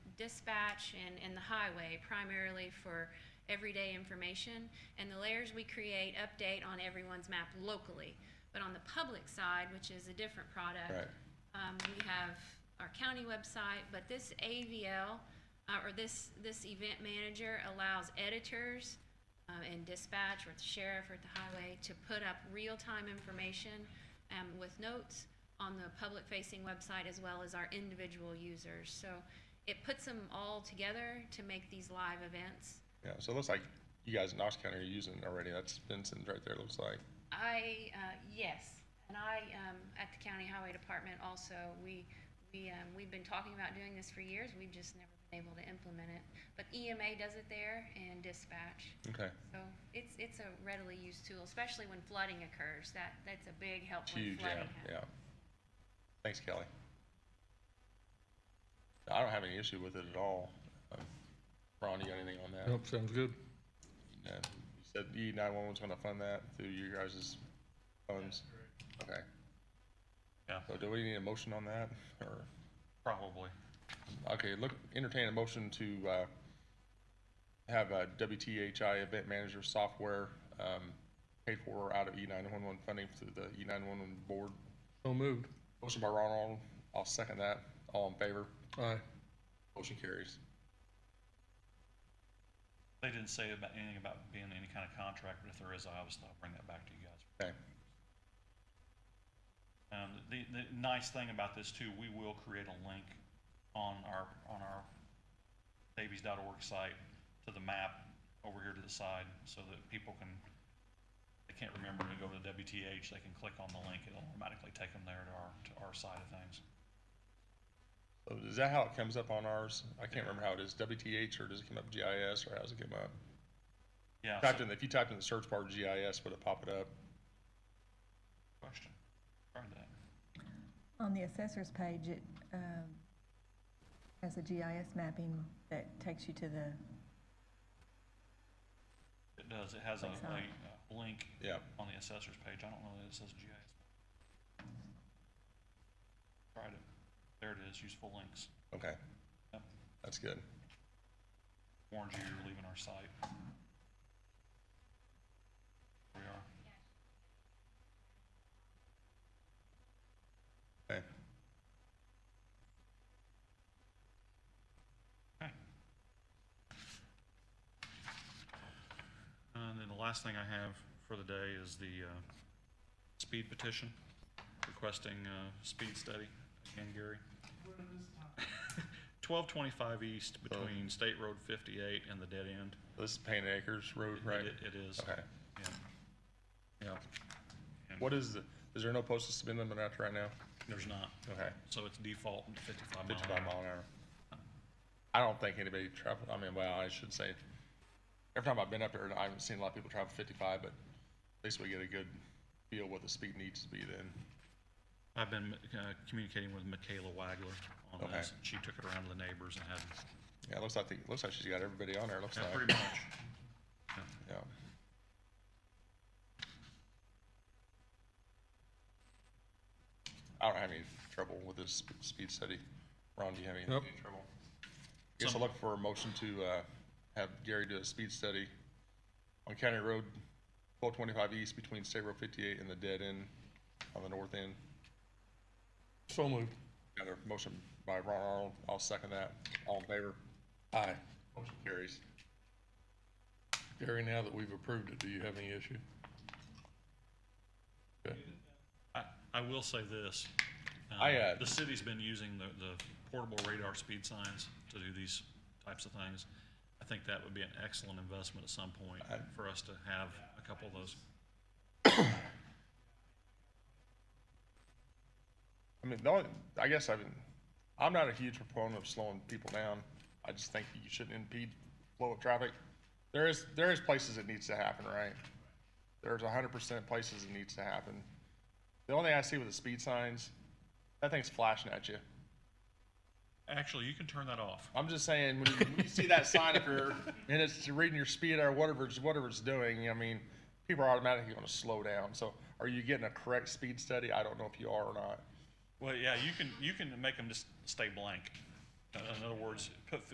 dispatch and, and the highway primarily for everyday information. And the layers we create update on everyone's map locally. But on the public side, which is a different product. Right. Um, we have our county website, but this AVL, uh, or this, this event manager allows editors, uh, and dispatch or the sheriff or the highway to put up real-time information, um, with notes on the public-facing website as well as our individual users. So it puts them all together to make these live events. Yeah, so it looks like you guys in Knox County are using it already. That's Vincent right there, it looks like. I, uh, yes, and I, um, at the county highway department also, we, we, um, we've been talking about doing this for years, we've just never been able to implement it. But EMA does it there and dispatch, Okay, so it's, it's a readily used tool, especially when flooding occurs, that, that's a big help when huge, yeah, flooding happens. yeah. Thanks, Kelly. I don't have any issue with it at all. Um, Ron, you got anything on that? Nope, sounds good. No. You said E nine one one's gonna fund that through your guys' funds? Okay. Yeah. So do we need a motion on that, or? Probably. Okay, look, entertain a motion to, uh, have a WTHI event manager software, um, paid for out of E nine one one funding through the E nine one one board. So moved. Motion by Ron Arnold, I'll second that. All in favor? Aye. Motion carries. They didn't say about anything about being any kind of contract, but if there is, I obviously I'll bring that back to you guys. Okay, Um, the, the nice thing about this too, we will create a link on our, on our davies.org site to the map over here to the side so that people can, they can't remember to go to WTH, they can click on the link, it'll automatically take them there to our, to our side of things. so is that how it comes up on ours? I can't remember how it is, WTH, or does it come up GIS, or how's it come up? Yeah, so- Typed in, if you typed in the search bar GIS, would it pop it up? question. Try that. On the assessor's page, it um, has a GIS mapping that takes you to the, It does, it has a, Thanks, a Howard. a link Yeah, on the assessor's page. I don't know that it says GIS. Tried it. There it is, useful links. okay, Yep. that's good. Warns you you're leaving our site. Here we are. Okay. Okay. And then the last thing I have for the day is the uh, speed petition requesting uh, speed study. Again, Gary. Twelve twenty-five east between State Road fifty-eight and the dead end. This is Payne Acres Road, It- right? It it is. Okay. Yeah. Yeah. And What is the, is there no posted speed limit out there right now? There's not. Okay, So it's default fifty-five mile an fifty-five hour. mile an hour. I don't think anybody travel, I mean, well, I should say, every time I've been up there, I haven't seen a lot of people travel fifty-five, but at least we get a good feel what the speed needs to be then. I've been uh, communicating with Michaela Wagler on Okay. this. She took it around to the neighbors and had, Yeah, it looks like, the- it looks like she's got everybody on there, it looks yeah, like, pretty much. yeah. I don't have any trouble with this sp- speed study. Ron, do you have any, Nope. any trouble? Guess I'll look for a motion to, uh, have Gary do a speed study on County Road twelve twenty-five east between State Road fifty-eight and the dead end on the north end. So moved. Got a motion by Ron Arnold, I'll second that. All in favor? Aye. Motion carries. Gary, now that we've approved it, do you have any issue? Okay. I, I will say this. uh, I, uh, The city's been using the, the portable radar speed signs to do these types of things. I think that would be an excellent investment at some point I- for us to have a couple of those. I mean, the only, I guess I've been, I'm not a huge proponent of slowing people down. I just think you shouldn't impede flow of traffic. There is, there is places it needs to happen, right? There's hundred percent places it needs to happen. The only thing I see with the speed signs, that thing's flashing at you. Actually, you can turn that off. I'm just saying, when you, when you see that sign up here and it's reading your speed or whatever it's, whatever it's doing, I mean, people are automatically gonna slow down. So are you getting a correct speed study? I don't know if you are or not. Well, yeah, you can, you can make them just stay blank. Uh, In other words, put